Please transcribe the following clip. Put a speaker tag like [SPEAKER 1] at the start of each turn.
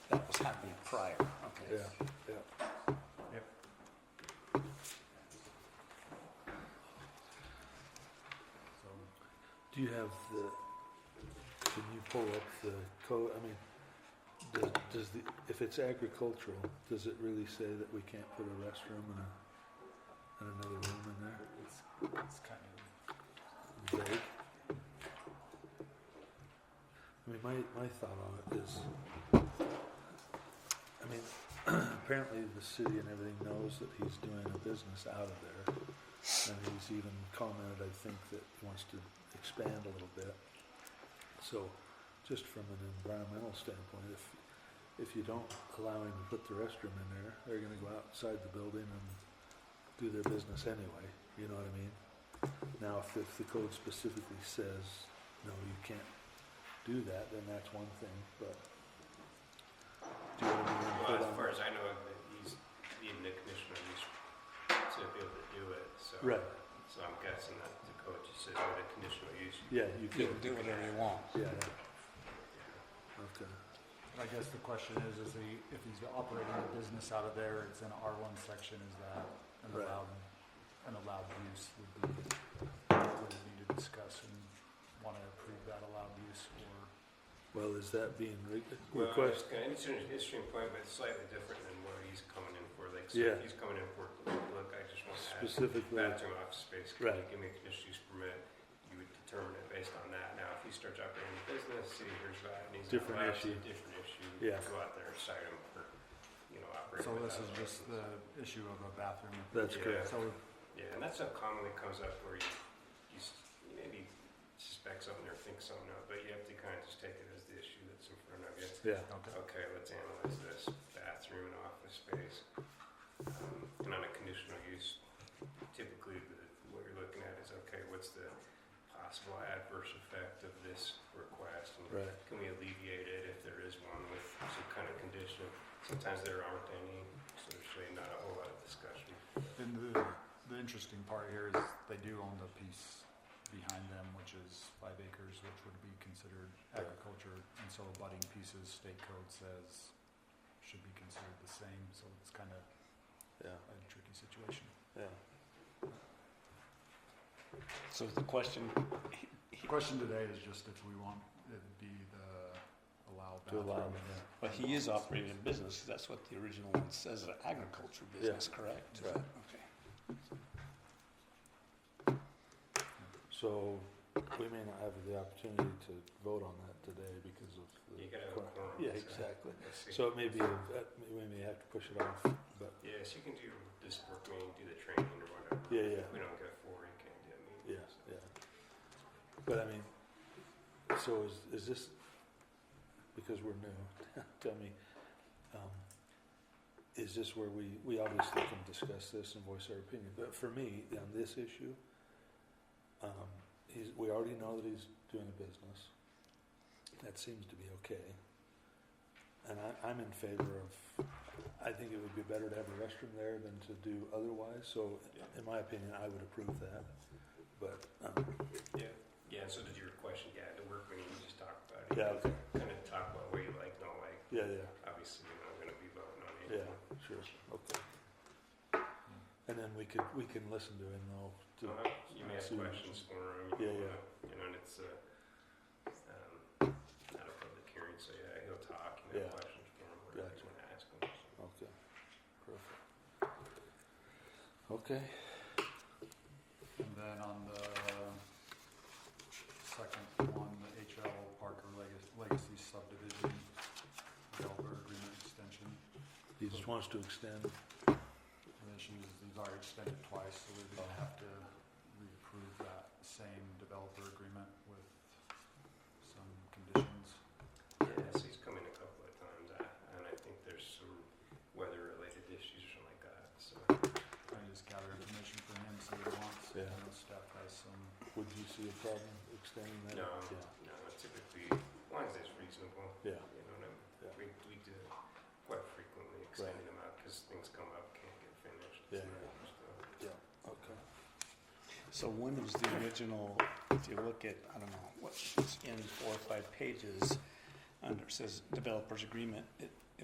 [SPEAKER 1] Not be prior, okay.
[SPEAKER 2] yeah.
[SPEAKER 3] Yep.
[SPEAKER 2] Do you have the, can you pull up the code, I mean, does, does the, if it's agricultural, does it really say that we can't put a restroom and a, and another room in there?
[SPEAKER 3] It's, it's kind of,
[SPEAKER 2] vague. I mean, my, my thought on it is, I mean, apparently the city and everything knows that he's doing a business out of there. And he's even commented, I think, that he wants to expand a little bit. So, just from an environmental standpoint, if, if you don't allow him to put the restroom in there, they're gonna go outside the building and do their business anyway, you know what I mean? Now, if, if the code specifically says, no, you can't do that, then that's one thing, but. Do you want to
[SPEAKER 4] Well,
[SPEAKER 2] put
[SPEAKER 4] as
[SPEAKER 2] on-
[SPEAKER 4] far as I know, that he's, even the commissioner, he's to be able to do it, so.
[SPEAKER 2] Right,
[SPEAKER 4] So I'm guessing that the code just says with a conditional use.
[SPEAKER 2] yeah, you
[SPEAKER 1] You
[SPEAKER 2] could,
[SPEAKER 1] can do whatever you want.
[SPEAKER 2] yeah, yeah. okay,
[SPEAKER 3] I guess the question is, is he, if he's operating a business out of there, it's an R one section, is that an
[SPEAKER 2] Right.
[SPEAKER 3] allowed, an allowed use would be, would need to discuss and want to approve that allowed use or,
[SPEAKER 2] well, is that being re-
[SPEAKER 4] Well,
[SPEAKER 2] request,
[SPEAKER 4] it's kind of- It's an interesting point, but it's slightly different than what he's coming in for, like, so
[SPEAKER 2] Yeah.
[SPEAKER 4] if he's coming in for, look, I just want to add
[SPEAKER 2] specifically,
[SPEAKER 4] bathroom office space, can you
[SPEAKER 2] Right.
[SPEAKER 4] give me a conditional use permit? You would determine it based on that. Now, if he starts operating a business, city hears about it, and he's not
[SPEAKER 2] Different
[SPEAKER 4] allowed to,
[SPEAKER 2] issue.
[SPEAKER 4] different issue.
[SPEAKER 2] Yeah.
[SPEAKER 4] Go out there and cite him for, you know, operating.
[SPEAKER 3] so this
[SPEAKER 4] without
[SPEAKER 3] is
[SPEAKER 4] a
[SPEAKER 3] just
[SPEAKER 4] license.
[SPEAKER 3] the issue of a bathroom.
[SPEAKER 2] that's
[SPEAKER 4] Yeah.
[SPEAKER 2] correct,
[SPEAKER 3] So
[SPEAKER 4] Yeah, and that stuff commonly comes up where you, you s- you maybe suspect something or think something of, but you have to kind of just take it as the issue that's in front of you.
[SPEAKER 2] yeah,
[SPEAKER 3] Okay.
[SPEAKER 4] Okay, let's analyze this bathroom and office space. Um, And on a conditional use, typically the- what you're looking at is, okay, what's the possible adverse effect of this request? and
[SPEAKER 2] right,
[SPEAKER 4] Can we alleviate it if there is one with some kind of condition? Sometimes there aren't any, so there's really not a whole lot of discussion.
[SPEAKER 3] And the, the interesting part here is they do own the piece behind them, which is five acres, which would be considered agriculture. And so abutting pieces, state code says, should be considered the same, so it's kind of
[SPEAKER 2] yeah,
[SPEAKER 3] a tricky situation.
[SPEAKER 2] yeah.
[SPEAKER 1] So the question,
[SPEAKER 3] The question today is just if we want, it'd be the allowed
[SPEAKER 2] To
[SPEAKER 3] bathroom.
[SPEAKER 2] allow
[SPEAKER 3] and-
[SPEAKER 1] but he is operating a business, 'cause that's what the original one says, an agriculture business, correct?
[SPEAKER 2] Right.
[SPEAKER 1] Okay.
[SPEAKER 2] So, we may not have the opportunity to vote on that today because of the.
[SPEAKER 4] You gotta have a
[SPEAKER 2] quorum.
[SPEAKER 4] quorum,
[SPEAKER 2] Yeah,
[SPEAKER 4] so-
[SPEAKER 2] exactly,
[SPEAKER 4] Let's see.
[SPEAKER 2] so it may be, that- we may have to push it off, but,
[SPEAKER 4] Yes, you can do this work meeting, do the training or whatever.
[SPEAKER 2] yeah, yeah.
[SPEAKER 4] If we don't get four, you can't do a meeting.
[SPEAKER 2] Yeah, yeah. But I mean, so is, is this, because we're new, tell me, um, is this where we, we obviously can discuss this and voice our opinion, but for me, on this issue, um, he's, we already know that he's doing a business. That seems to be okay. And I, I'm in favor of, I think it would be better to have a restroom there than to do otherwise, so
[SPEAKER 4] Yeah.
[SPEAKER 2] in my opinion, I would approve that. But, um,
[SPEAKER 4] Yeah, yeah, and so did your question, yeah, the work meeting, you just talked about it.
[SPEAKER 2] yeah, okay,
[SPEAKER 4] Kind of talk about what you like, don't like,
[SPEAKER 2] yeah, yeah,
[SPEAKER 4] obviously, you're not gonna be voting on
[SPEAKER 2] yeah,
[SPEAKER 4] anything.
[SPEAKER 2] sure, okay. And then we could, we can listen to him though, to,
[SPEAKER 4] Uh-huh. You may have
[SPEAKER 2] Soon.
[SPEAKER 4] questions for him,
[SPEAKER 2] Yeah,
[SPEAKER 4] you know,
[SPEAKER 2] yeah.
[SPEAKER 4] you know, and it's, uh, um, not a public hearing, so yeah, he'll talk, you
[SPEAKER 2] Yeah.
[SPEAKER 4] may have questions for him, whatever
[SPEAKER 2] Gotcha.
[SPEAKER 4] you wanna ask him. so.
[SPEAKER 2] okay, perfect. Okay,
[SPEAKER 3] And then on the second one, the HL Parker Legacy- Legacy subdivision, developer agreement extension.
[SPEAKER 2] he just wants to extend,
[SPEAKER 3] The issue is these are extended twice, so we're gonna have to reapprove that same developer agreement with some conditions.
[SPEAKER 4] Yeah, so he's come in a couple of times, uh, and I think there's some weather-related issues or something like that, so.
[SPEAKER 3] Trying to just gather information from him, see what he wants.
[SPEAKER 2] Yeah.
[SPEAKER 3] I know staff has some,
[SPEAKER 2] would you see a problem extending that?
[SPEAKER 4] No,
[SPEAKER 2] Yeah,
[SPEAKER 4] no, typically, as long as it's reasonable,
[SPEAKER 2] yeah,
[SPEAKER 4] you know, and
[SPEAKER 2] Yeah.
[SPEAKER 4] we, we do quite frequently extend them out, cause things come up, can't get finished.
[SPEAKER 2] Yeah,
[SPEAKER 4] so,
[SPEAKER 2] yeah.
[SPEAKER 4] so.
[SPEAKER 2] okay.
[SPEAKER 1] So when was the original, if you look at, I don't know, what's in four or five pages, under, it says developers agreement, it